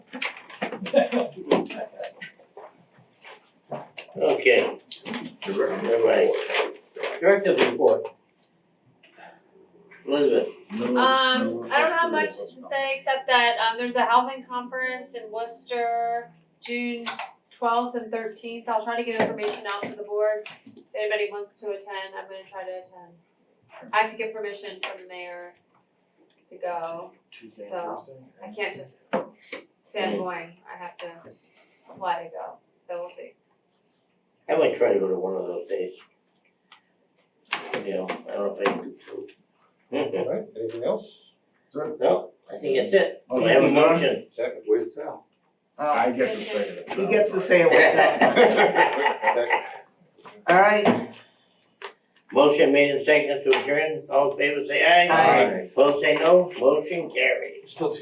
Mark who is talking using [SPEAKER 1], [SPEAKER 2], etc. [SPEAKER 1] Okay, all right. Directive report. Elizabeth,
[SPEAKER 2] Um, I don't have much to say except that um there's a housing conference in Worcester, June twelfth and thirteenth. I'll try to get information out to the board. If anybody wants to attend, I'm gonna try to attend. I have to get permission from the mayor to go.
[SPEAKER 3] Tuesday
[SPEAKER 2] So, I can't just say I'm going. I have to apply to go, so we'll see.
[SPEAKER 1] I might try to go to one of those days. You know, I don't know if I can do two. Mhm.
[SPEAKER 4] Alright, anything else?
[SPEAKER 1] No, I think that's it.
[SPEAKER 3] Oh,
[SPEAKER 1] Do I have a motion?
[SPEAKER 4] Second, where's Sal?
[SPEAKER 5] Oh,
[SPEAKER 3] I get to say it.
[SPEAKER 5] he gets to say it with sex.
[SPEAKER 4] Second.
[SPEAKER 5] All right,
[SPEAKER 1] Motion made and seconded to adjourn, all in favor say aye.
[SPEAKER 5] Aye.
[SPEAKER 1] Both say no, motion carried.
[SPEAKER 3] Still two